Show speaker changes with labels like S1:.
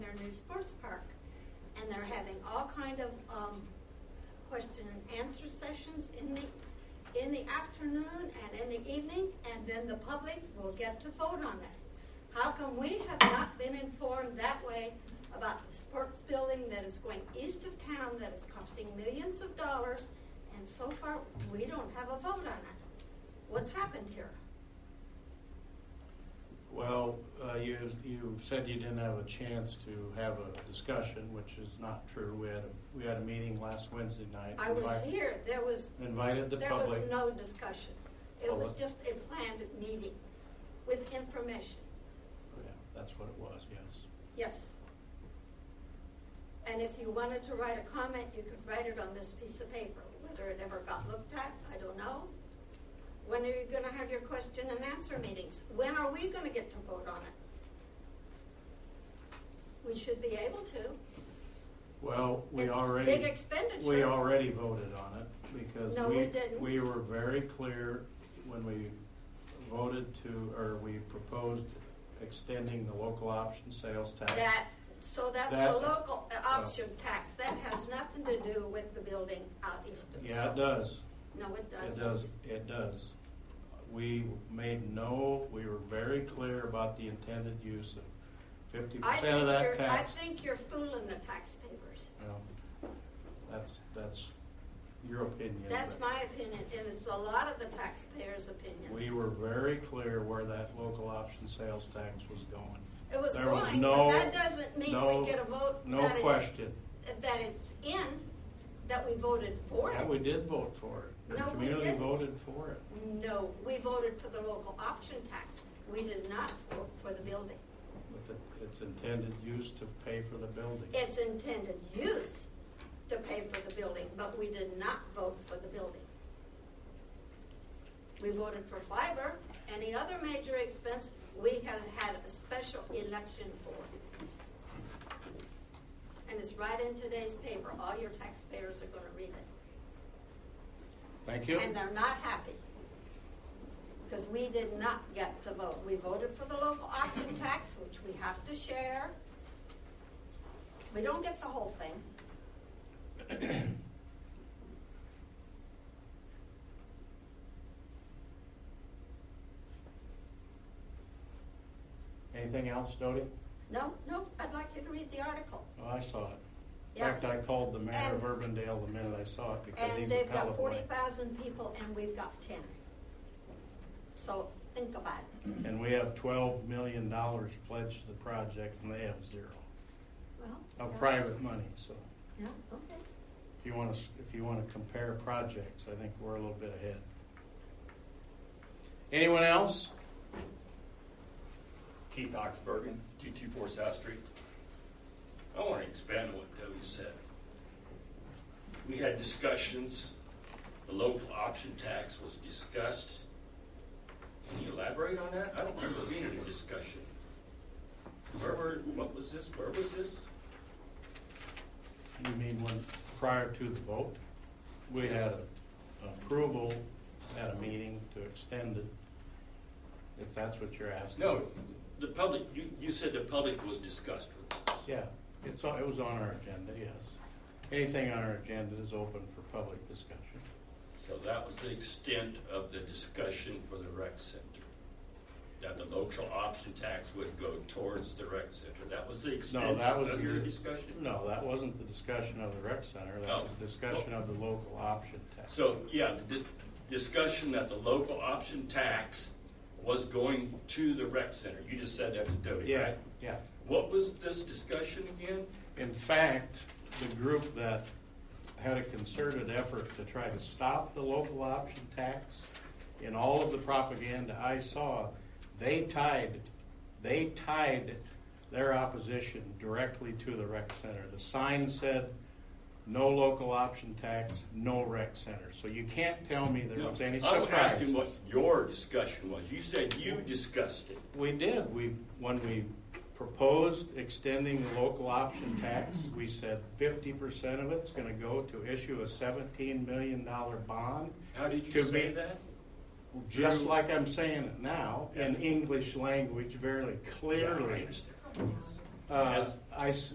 S1: sports park. And they're having all kind of, um, question and answer sessions in the, in the afternoon and in the evening, and then the public will get to vote on it. How come we have not been informed that way about the sports building that is going east of town, that is costing millions of dollars, and so far, we don't have a vote on it? What's happened here?
S2: Well, uh, you, you said you didn't have a chance to have a discussion, which is not true. We had, a we had a meeting last Wednesday night.
S1: I was
S2: Invite-
S1: here, there was,
S2: Invited the
S1: there was
S2: public.
S1: no discussion. It was
S2: Public.
S1: just a planned meeting with information,
S2: Yeah, That's what it was, yes.
S1: yes. And if you wanted to write a comment, you could write it on this piece of paper. Whether it ever got looked at, I don't know. When are you gonna have your question and answer meetings? When are we gonna get to vote on it? We should be able to.
S2: Well, we
S1: It's
S2: already.
S1: big expenditure.
S2: We already voted on it because.
S1: No, we didn't.
S2: We were very clear when we voted to, or we proposed extending the local option sales tax.
S1: That, so that's the
S2: That-
S1: local uh,
S2: Oh.
S1: option tax, that has nothing to do with the building out east of town.
S2: Yeah, it does.
S1: No, it
S2: It
S1: doesn't.
S2: does, it does. We made no, we were very clear about the intended use of fifty
S1: I
S2: percent
S1: think
S2: of that
S1: you're, I
S2: tax.
S1: think you're fooling the taxpayers.
S2: Well, That's, that's your opinion.
S1: That's
S2: but
S1: my opinion, and it's a lot of the taxpayers' opinions.
S2: We were very clear where that local option sales tax was going.
S1: It was
S2: There was
S1: going, but
S2: no-
S1: that doesn't mean
S2: no-
S1: we get a vote
S2: No
S1: that it's,
S2: question.
S1: that it's in, that we voted for
S2: Yeah,
S1: it.
S2: we did vote for it.
S1: No,
S2: The
S1: we
S2: community
S1: didn't.
S2: voted for it.
S1: No, we voted for the local option tax. We did not vote for the building.
S2: With it- its intended use to pay for the building.
S1: its intended use to pay for the building, but we did not vote for the building. We voted for fiber, any other major expense, we have had a special election for. And it's right in today's paper, all your taxpayers are gonna read it.
S2: Thank you.
S1: And they're not happy. Because we did not get to vote, we voted for the local option tax, which we have to share. We don't get the whole thing.
S2: Anything else, Dodie?
S1: No, no, I'd like you to read the article.
S2: Oh, I saw it. In
S1: Yeah.
S2: fact, I called the mayor of
S1: And-
S2: Urbandale the minute I saw it because
S1: And
S2: he's a
S1: they've
S2: pal
S1: got
S2: of mine.
S1: forty thousand people and we've got ten. So think about it.
S2: And we have twelve million dollars pledged to the project and they have zero
S1: Well.
S2: of
S1: yeah.
S2: private money, so.
S1: Yeah, okay.
S2: If you wanna, s- if you wanna compare projects, I think we're a little bit ahead. Anyone else?
S3: Keith Oxbergen, 224 South Street. I want to expand on what Toby said. We had discussions, the local option tax was discussed. Can you elaborate on that? I don't remember being in a discussion. Where were, what was this, where was this?
S2: You mean when, prior to the vote? We had approval at a meeting to extend it, if that's what you're asking.
S3: No, the public, you, you said the public was discussed with us.
S2: Yeah, it's, on- it was on our agenda, yes. Anything on our agenda is open for public discussion.
S3: So that was the extent of the discussion for the rec center. That the local option tax would go towards the rec center. That was the
S2: No,
S3: extent
S2: that was.
S3: of
S2: the
S3: your
S2: dis-
S3: discussion?
S2: No, that wasn't the discussion of the rec center, that
S3: Oh.
S2: was the discussion of the local option tax.
S3: So, yeah, the di- discussion that the local option tax was going to the rec center. You just said that to Doty,
S2: Yeah,
S3: right?
S2: yeah.
S3: What was this discussion again?
S2: In fact, the group that had a concerted effort to try to stop the local option tax, in all of the propaganda I saw, they tied, they tied their opposition directly to the rec center. The sign said, no local option tax, no rec center. So you can't tell me there was any
S3: I was asking what
S2: surprises.
S3: your discussion was. You said you discussed it.
S2: We did. We, when we proposed extending the local option tax, we said fifty percent of it's gonna go to issue a seventeen million dollar bond,
S3: How did you
S2: To
S3: say
S2: me-
S3: that?
S2: just
S3: Drew-
S2: like I'm saying it now, in
S3: Yeah.
S2: English language very
S3: Yeah, I
S2: clearly.
S3: understand.
S2: Uh,
S3: Yes.
S2: I, s-